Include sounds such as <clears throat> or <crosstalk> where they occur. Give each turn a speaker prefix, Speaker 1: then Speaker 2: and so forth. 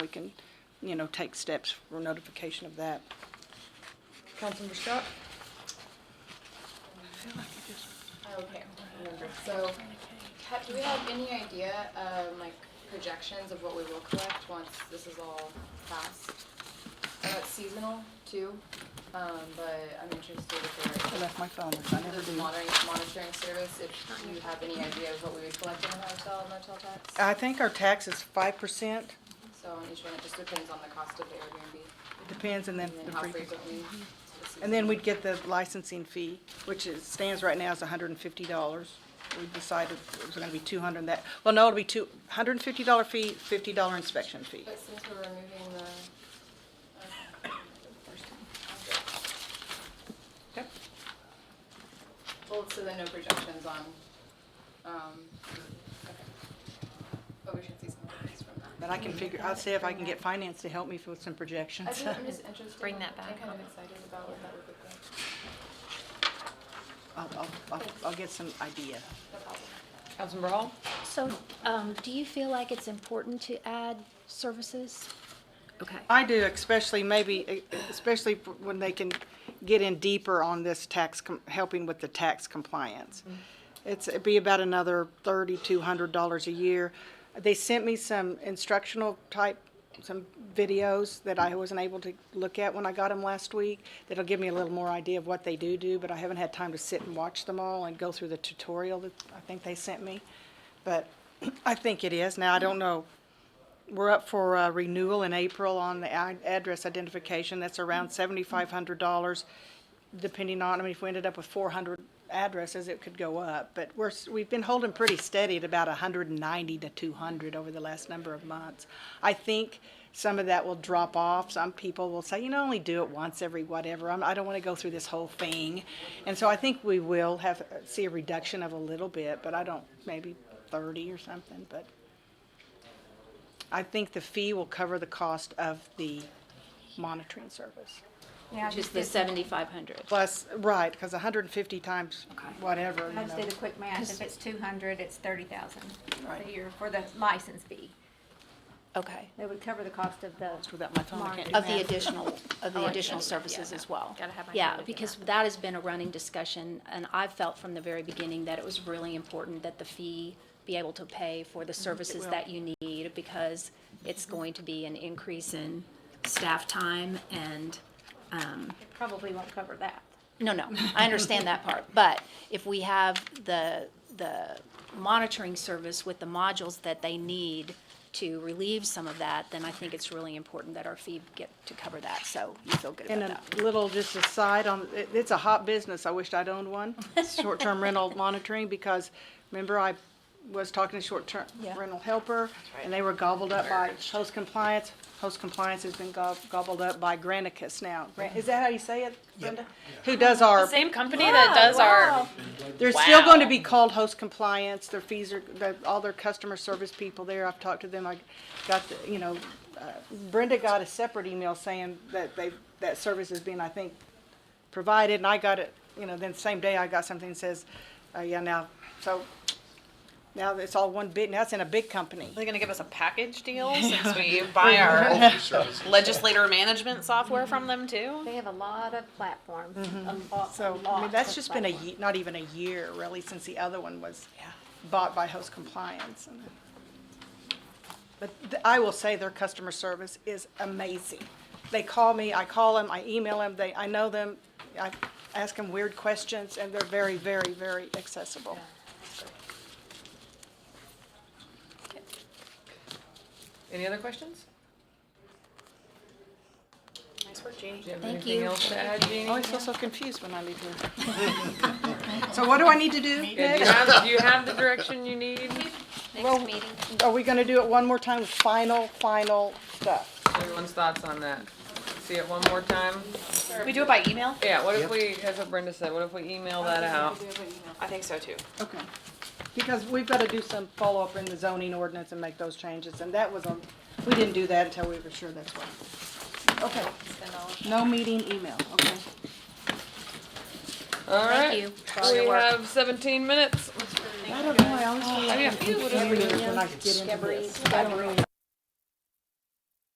Speaker 1: we can, you know, take steps for notification of that.
Speaker 2: Councilmember Scott?
Speaker 3: Okay, remember, so, ha- do we have any idea, um, like, projections of what we will collect once this is all passed? I know it's seasonal too, um, but I'm interested
Speaker 1: I
Speaker 3: if
Speaker 1: left my phone, with me. I
Speaker 3: there,
Speaker 1: never
Speaker 3: this
Speaker 1: do.
Speaker 3: monitoring, monitoring service, if you have any idea of what we would collect in the hotel motel tax?
Speaker 1: I think our tax is five percent,
Speaker 3: So on each one, it just depends on the cost of the Airbnb,
Speaker 1: depends, and then
Speaker 3: and
Speaker 1: the
Speaker 3: then how
Speaker 1: free-
Speaker 3: frequently. it's
Speaker 1: And then we'd get the licensing fee, which is, stands right now is hundred and fifty dollars. We decided it was gonna be two hundred and that, well, no, it'll be two, hundred and fifty dollar fee, fifty dollar inspection fee.
Speaker 3: But since we're removing the, uh, <coughs> okay.
Speaker 1: Yep.
Speaker 3: Well, so then no projections on, um, okay. But we should see some things from that.
Speaker 1: But I can figure, I'll see if I can get finance to help me with some
Speaker 3: I
Speaker 1: projections.
Speaker 3: think I'm just interested.
Speaker 4: Bring
Speaker 3: in-
Speaker 4: that
Speaker 3: I'm
Speaker 4: back.
Speaker 3: kind of excited about what that would look like.
Speaker 1: <laughs> I'll, I'll, I'll, I'll get some idea.
Speaker 3: No problem.
Speaker 2: Councilmember Hall?
Speaker 5: So, um, do you feel like it's important to add services?
Speaker 4: Okay.
Speaker 1: I do, especially maybe, e, especially when they can get in deeper on this tax, com- helping with the tax compliance. It's, it'd be about another thirty-two hundred dollars a year. They sent me some instructional type, some videos that I wasn't able to look at when I got them last week. That'll give me a little more idea of what they do do, but I haven't had time to sit and watch them all and go through the tutorial that I think they sent me. But <clears throat> I think it is. Now, I don't know we're up for uh, renewal in April on the ad- address identification. That's around seventy-five hundred dollars, depending on, I mean, if we ended up with four hundred addresses, it could go up. But we're, s- we've been holding pretty steady at about hundred and ninety to two hundred over the last number of months. I think some of that will drop off. Some people will say, you know, only do it once every whatever. I'm, I don't want to go through this whole thing. And so I think we will have, see a reduction of a little bit, but I don't, maybe thirty or something, but. I think the fee will cover the cost of the monitoring service.
Speaker 4: Which is the seventy-five hundred.
Speaker 1: Plus, right, because hundred and fifty times whatever, you
Speaker 6: I just did
Speaker 1: know.
Speaker 6: the quick math, if it's two hundred, it's thirty thousand
Speaker 1: Right.
Speaker 6: a year for the license fee.
Speaker 7: Okay,
Speaker 6: That would cover the cost of the.
Speaker 1: Without my phone, I can't do
Speaker 7: of the
Speaker 1: math.
Speaker 7: additional, of the additional services as well.
Speaker 4: Gotta have my
Speaker 7: Oh, Yeah,
Speaker 4: hand in
Speaker 7: because that has been a running discussion, and I felt from the very beginning that it was really important that the fee be able to pay for the services that you need, because it's going to be an increase in staff time and,
Speaker 6: It Probably won't cover that.
Speaker 7: no, no, I understand that part, but if we have the, the monitoring service with the modules that they need to relieve some of that, then I think it's really important that our fee get to cover that, so you feel good about
Speaker 1: And
Speaker 7: that.
Speaker 1: a little just aside on, it- it's a hot business. I wished I'd
Speaker 8: <laughs>
Speaker 1: owned one, short-term rental monitoring, because remember I was talking to short-term
Speaker 7: Yeah.
Speaker 1: rental helper, and they were gobbled up by host compliance. Host compliance has been gob- gobbled up by Granicus now. Gran- Is that how you say it, Brenda? Who does our
Speaker 8: Same company that does our
Speaker 1: They're still going to be called host compliance. Their fees are, the- all their customer service people there, I've talked to them. I got, the you know, uh, Brenda got a separate email saying that they, that service is being, I think, provided. And I got it, you know, then same day I got something that says, uh, yeah, now, so now it's all one bit. Now it's in a big company.
Speaker 8: They're gonna give us a package
Speaker 3: <laughs>
Speaker 8: deal since we buy our legislator management software from them too.
Speaker 6: They have a lot of platforms, a lot,
Speaker 1: Mm-hmm. So,
Speaker 6: a
Speaker 1: I
Speaker 6: lot
Speaker 1: mean,
Speaker 6: of
Speaker 1: that's just been a,
Speaker 6: platforms.
Speaker 1: ye- not even a year really, since the other one was bought by Host Compliance. And- But th- I will say their customer service is amazing. They call me, I call them, I email them, they, I know them, I ask them weird questions, and they're very, very, very accessible.
Speaker 2: Any other questions?
Speaker 3: Nice work, Jeannie. Oh,
Speaker 2: Do you have
Speaker 7: Thank
Speaker 2: anything
Speaker 7: you.
Speaker 2: else to add,
Speaker 1: I
Speaker 2: Jeannie?
Speaker 1: always feel so confused when I leave here. <laughs> So what do I need to do
Speaker 2: Yeah, do you
Speaker 1: next?
Speaker 2: have, do you have the direction you need?
Speaker 1: Well, Are we gonna do it one more time, with final, final stuff?
Speaker 2: Everyone's thoughts on that? See it one more time?
Speaker 8: We do it by email?
Speaker 2: Yeah, what if we, that's what Brenda said, what if we email that out?
Speaker 8: I think so too.
Speaker 1: Okay, because we've gotta do some follow-up in the zoning ordinance and make those changes, and that was a, we didn't do that until we were sure that's why. Okay, no meeting email, okay.
Speaker 2: All
Speaker 7: Thank
Speaker 2: right,
Speaker 7: you.
Speaker 2: we have seventeen minutes.
Speaker 1: I don't know, I always feel like
Speaker 2: Yeah.
Speaker 1: I'm confused when I get into this.